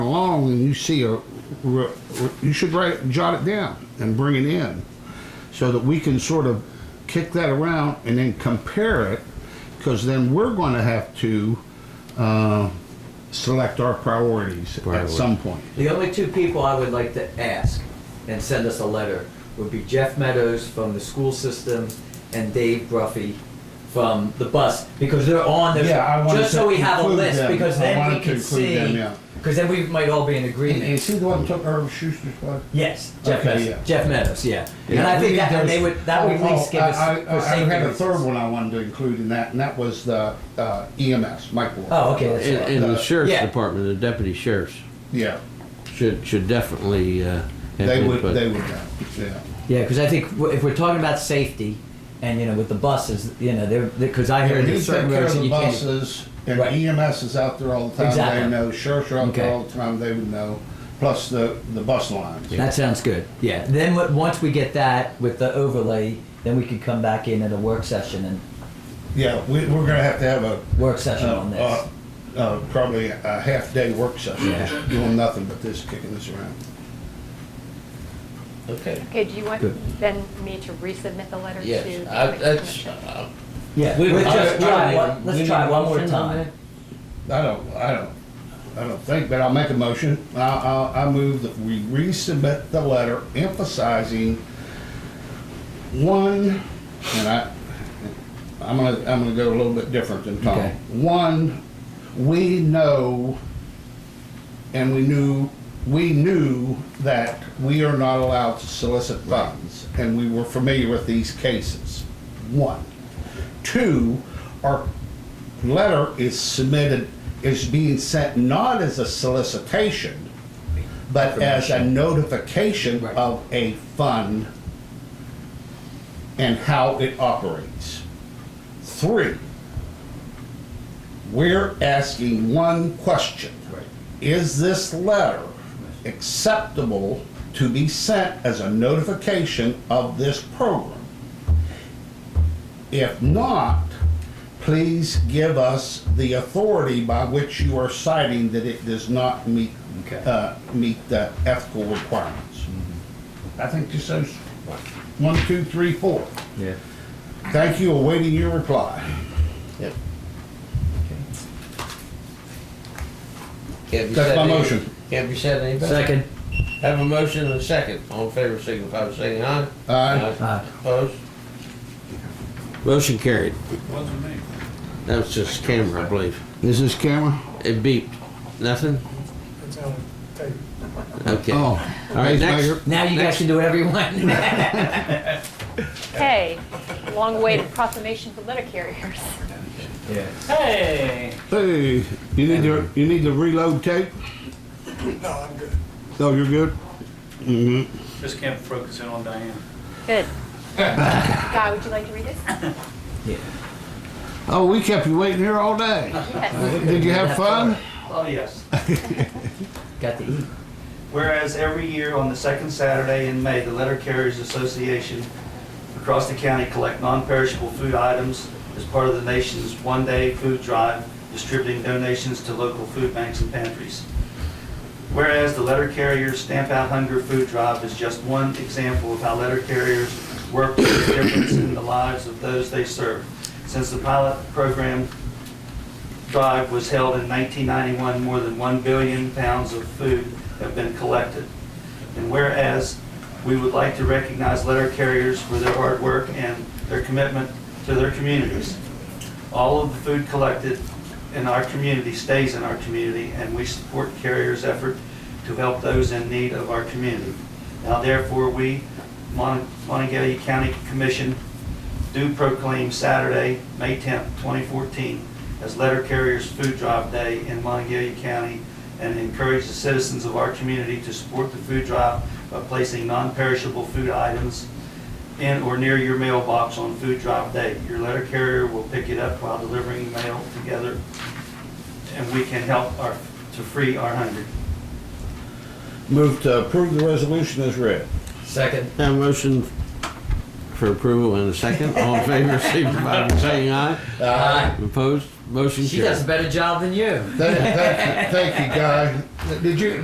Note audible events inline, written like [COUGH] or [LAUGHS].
phone and you see a, re- re- you should write, jot it down and bring it in so that we can sort of kick that around and then compare it because then we're going to have to uh, select our priorities at Priorities. some point. The only two people I would like to ask and send us a letter would be Jeff Meadows from the school system and Dave Bruffy from the bus, because they're on this, Yeah, I wanted just so to we have a include list, them. because I then wanted we to can include them, see, yeah. because then we might all be in And is agreement. he the one who took Irv Schuster's place? Yes, Jeff Okay, Meadows, yeah. Jeff Meadows, yeah. And Yeah, I we think need that, and those- they would, that would Oh, at least oh, give us, I- I- for I safety had a third reasons. one I wanted to include in that, and that was the uh, EMS, Mike Ward. Oh, okay, that's And, uh, and the sheriff's Yeah. department, the deputy sheriffs Yeah, should, should definitely, uh, have they would, input. they would know, yeah. Yeah, because I think w- if we're talking about safety, and you know, with the buses, you know, they're, because I heard You there's take certain care roads of that the you can't. buses, and Right. EMS is out there all the time, Exactly. they know, sheriffs are out Okay. there all the time, they would know, plus the, the bus lines. That sounds good. Yeah. Then what, once we get that with the overlay, then we could come back in at a work session and Yeah, we, we're gonna have to have a. work session uh, on this. uh, Uh, probably a half-day work session, just doing nothing but this, kicking this around. Okay, Okay, do you want Good. then me to resubmit the letter to? yes, the I, that's, commission? uh, yeah. we- Let's I- just I- try. I- One, we let's need try a one more motion on time. that? I don't, I don't, I don't think, but I'll make a motion. I, I, I move that we resubmit the letter emphasizing one, and I, I'm gonna, I'm gonna go a little bit different than Tom. Okay. One, we know, and we knew, we knew that we are not allowed to solicit funds, and we were familiar with these cases. One. Two, our letter is submitted, is being sent not as a solicitation, but as a notification Right. of a fund and how it operates. Three, we're asking one question. Is this letter acceptable to be sent as a notification of this program? If not, please give us the authority by which you are citing that it does not meet, Okay. uh, meet the ethical requirements. Mm-hmm. I think just those, one, two, three, four. Yeah. Thank you, awaiting your reply. Yep. That's my motion. Can't be said any better. Second. Have a motion and a second. All in favor, signify by saying aye. Aye. Aye. Opposed? Motion carried. That was just camera, I believe. Is this camera? It beeped. Nothing? It's on tape. Okay. Oh. All right, next. Now you guys can do whatever you [LAUGHS] want. Okay, long-awaited proclamation for letter carriers. Hey! Hey, you need to, you need to reload tape? No, I'm good. No, you're good? Just can't focus in on Diane. Good. [LAUGHS] Guy, would you like to read this? Oh, we kept you waiting here all [LAUGHS] day. Yes. Did you have fun? Oh, yes. Got to eat. Whereas every year on the second Saturday in May, the Letter Carriers Association across the county collect non-perishable food items as part of the nation's one-day food drive, distributing donations to local food banks and pantries. Whereas the Letter Carriers Stamp Out Hunger Food Drive is just one example of how letter carriers work to make a difference in the lives of those they serve. Since the pilot program drive was held in 1991, more than 1 billion pounds of food have been collected. And whereas we would like to recognize letter carriers for their hard work and their commitment to their communities. All of the food collected in our community stays in our community, and we support carriers' effort to help those in need of our community. Now therefore, we, Mon- Montague County Commission, do proclaim Saturday, May 10th, 2014, as Letter Carriers Food Drive Day in Montague County and encourage the citizens of our community to support the food drive by placing non-perishable food items in or near your mailbox on Food Drive Day. Your letter carrier will pick it up while delivering mail together, and we can help our, to free our hungry. Move to approve the resolution as read. Second. Have a motion for approval in a second. All in favor, signify by saying aye. Aye. Opposed? Motion She carried. does a better job than you. Thank, thank, you- thank you, Guy. Did you,